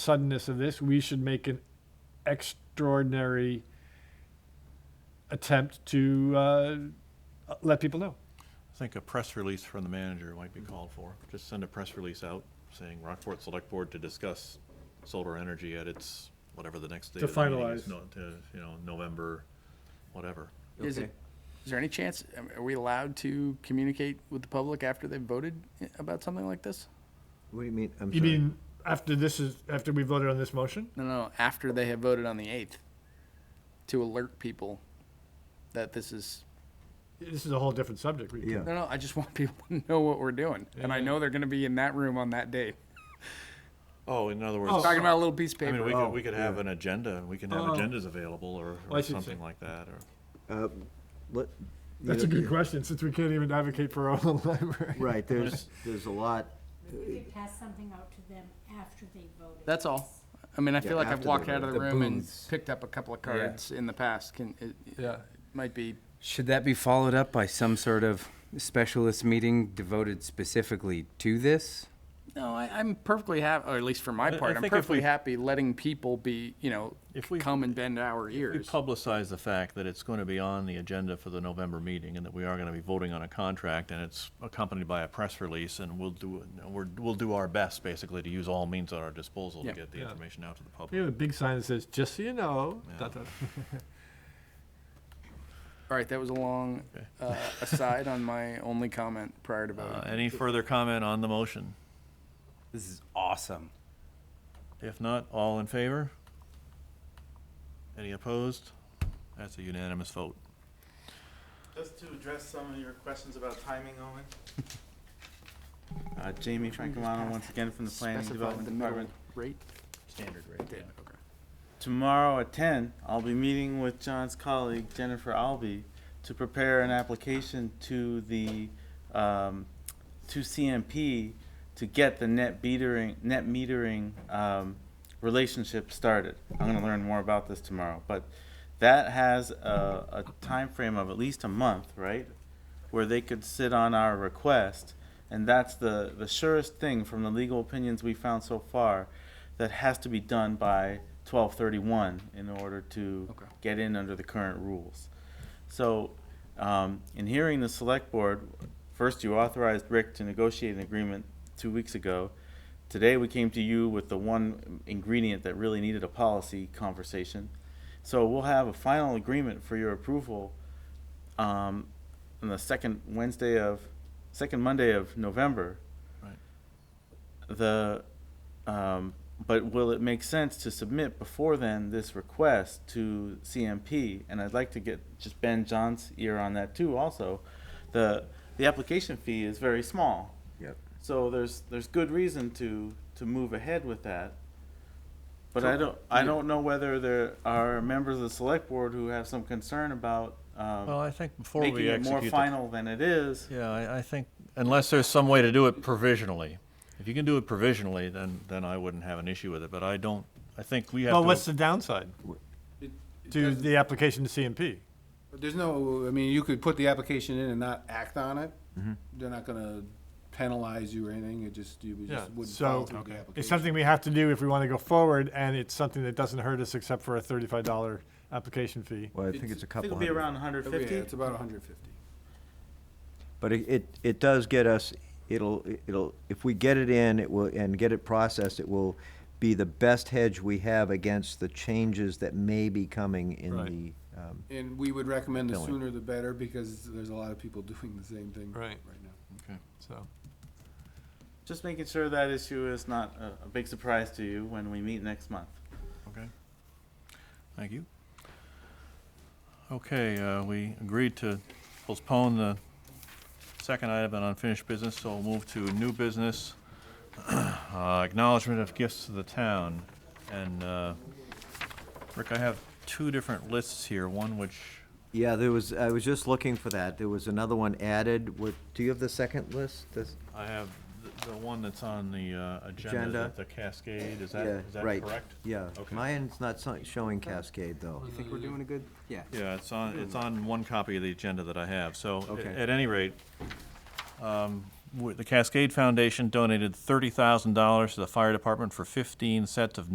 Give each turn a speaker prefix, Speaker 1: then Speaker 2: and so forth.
Speaker 1: suddenness of this, we should make an extraordinary attempt to uh, let people know.
Speaker 2: I think a press release from the manager might be called for. Just send a press release out saying Rockport Select Board to discuss solar energy at its, whatever the next day
Speaker 1: To
Speaker 2: of the meeting
Speaker 1: finalize.
Speaker 2: is. no- To You know, November, whatever.
Speaker 3: Is it, is there any chance, um, are we allowed to communicate with the public after they've voted eh, about something like this?
Speaker 4: What do you mean? I'm
Speaker 1: You
Speaker 4: sorry.
Speaker 1: mean after this is after we voted on this motion?
Speaker 3: No, no, after they have voted on the 8th, to alert people that this is,
Speaker 1: This is a whole different subject. We-
Speaker 4: Yeah.
Speaker 3: no, no, I just want people to know what we're doing. And I know they're going to be in that room on that day,
Speaker 2: Oh, in other words.
Speaker 3: talking about a little piece of
Speaker 2: I mean, we
Speaker 3: paper.
Speaker 2: could,
Speaker 4: Oh,
Speaker 2: we could have an agenda, and we can have
Speaker 1: Oh.
Speaker 2: agendas available or,
Speaker 1: I
Speaker 2: or
Speaker 1: see,
Speaker 2: something
Speaker 1: see.
Speaker 2: like that, or.
Speaker 4: Let- you
Speaker 1: That's a
Speaker 4: know,
Speaker 1: good question since we can't even advocate for our own library.
Speaker 4: Right, there's, there's a lot,
Speaker 5: We could pass something out to them after they voted.
Speaker 3: That's all. I mean, I feel
Speaker 4: Yeah,
Speaker 3: like I've
Speaker 4: after they
Speaker 3: walked out
Speaker 4: vote.
Speaker 3: of the
Speaker 6: The
Speaker 3: room and
Speaker 6: booths.
Speaker 3: picked up a couple of cards in the past, can, it it
Speaker 6: Yeah.
Speaker 3: might be,
Speaker 6: Should that be followed up by some sort of specialist meeting devoted specifically to this?
Speaker 3: no, I, I'm perfectly happy, or at least for my
Speaker 2: I- I
Speaker 3: part, I'm
Speaker 2: think if
Speaker 3: perfectly
Speaker 2: we-
Speaker 3: happy letting people be, you know,
Speaker 2: If we-
Speaker 3: come and bend our
Speaker 2: We
Speaker 3: ears.
Speaker 2: publicize the fact that it's going to be on the agenda for the November meeting and that we are going to be voting on a contract and it's accompanied by a press release and we'll do, we're, we'll do our best basically to use all means at our disposal to
Speaker 3: Yeah.
Speaker 2: get the
Speaker 1: Yeah.
Speaker 2: information out to the public.
Speaker 1: We have a big sign that says, just so you know.
Speaker 2: Yeah.
Speaker 1: dot, dot.
Speaker 3: All right, that was a long uh, aside on my only comment prior to
Speaker 2: Uh,
Speaker 3: voting.
Speaker 2: Any further comment on the motion?
Speaker 6: This is awesome.
Speaker 2: If not, all in favor? Any opposed? That's a unanimous vote.
Speaker 7: Just to address some of your questions about timing, Owen. Uh, Jamie Francomano, once again from the Planning
Speaker 3: Specify
Speaker 7: Development
Speaker 3: the middle
Speaker 7: Department.
Speaker 3: Rate?
Speaker 2: Standard rate.
Speaker 3: Did, okay.
Speaker 7: Tomorrow at ten, I'll be meeting with John's colleague Jennifer Albee to prepare an application to the, um, to CMP to get the net metering, net metering, um, relationship started. I'm gonna learn more about this tomorrow, but that has a, a timeframe of at least a month, right? Where they could sit on our request, and that's the, the surest thing from the legal opinions we found so far that has to be done by twelve thirty-one in order to
Speaker 3: Okay.
Speaker 7: get in under the current rules. So, um, in hearing the select board, first you authorized Rick to negotiate an agreement two weeks ago. Today, we came to you with the one ingredient that really needed a policy conversation. So we'll have a final agreement for your approval, um, on the second Wednesday of, second Monday of November.
Speaker 2: Right.
Speaker 7: The, um, but will it make sense to submit before then this request to CMP? And I'd like to get just Ben John's ear on that too. Also, the the application fee is very small,
Speaker 4: yep.
Speaker 7: so there's there's good reason to to move ahead with that. But I don't I don't know whether there are members of the select board who have some concern about um,
Speaker 2: Well, I think before
Speaker 7: making
Speaker 2: we
Speaker 7: it more
Speaker 2: execute the
Speaker 7: final than it is.
Speaker 2: Yeah, I, I think, unless there's some way to do it provisionally. If you can do it provisionally, then, then I wouldn't have an issue with it, but I don't, I think we have to.
Speaker 1: Well, what's the downside
Speaker 8: It- it
Speaker 1: to
Speaker 8: doesn't-
Speaker 1: the application to CMP?
Speaker 8: There's no, I mean, you could put the application in and not act on it. They're not gonna penalize you or anything, it just, you would
Speaker 1: Yeah,
Speaker 8: just wouldn't follow
Speaker 1: so
Speaker 8: through the
Speaker 1: it's
Speaker 8: application.
Speaker 1: something we have to do if we want to go forward, and it's something that doesn't hurt us except for a thirty-five dollar application fee.
Speaker 4: Well, I think it's a
Speaker 7: I think
Speaker 4: couple
Speaker 7: it'll be
Speaker 4: hundred.
Speaker 7: around 150.
Speaker 8: Oh, Yeah, it's about hundred fifty.
Speaker 4: But it- it, it does get us, it'll, it'll, if we get it in, it will, and get it processed, it will be the best hedge we have against the changes that may be coming in
Speaker 1: Right.
Speaker 4: the, um,
Speaker 8: And we would recommend the
Speaker 4: Billing.
Speaker 8: sooner the better, because there's a lot of people doing the same thing
Speaker 1: Right.
Speaker 8: right now.
Speaker 1: So
Speaker 7: Just making sure that issue is not a, a big surprise to you when we meet next month.
Speaker 2: Okay. Thank you. Okay, uh, we agreed to postpone the second item on unfinished business, so we'll move to new business. Uh, Acknowledgement of gifts to the town. And uh, Rick, I have two different lists here, one which,
Speaker 4: yeah, there was, I was just looking for that. There was another one added. What, do you have the second list? Does-
Speaker 2: I have the- the one that's on the uh, agenda, is
Speaker 4: Agenda.
Speaker 2: that the Cascade, is that,
Speaker 4: yeah,
Speaker 2: is that
Speaker 4: right,
Speaker 2: correct?
Speaker 4: Yeah.
Speaker 2: Okay.
Speaker 4: Mine's not so- showing Cascade, though.
Speaker 6: You think we're doing a good? Yeah.
Speaker 2: Yeah, it's on, it's on one copy of the agenda that I have, so, a-
Speaker 4: Hmm. Okay.
Speaker 2: at any rate, um, w- the Cascade Foundation donated thirty thousand dollars to the fire department for fifteen sets of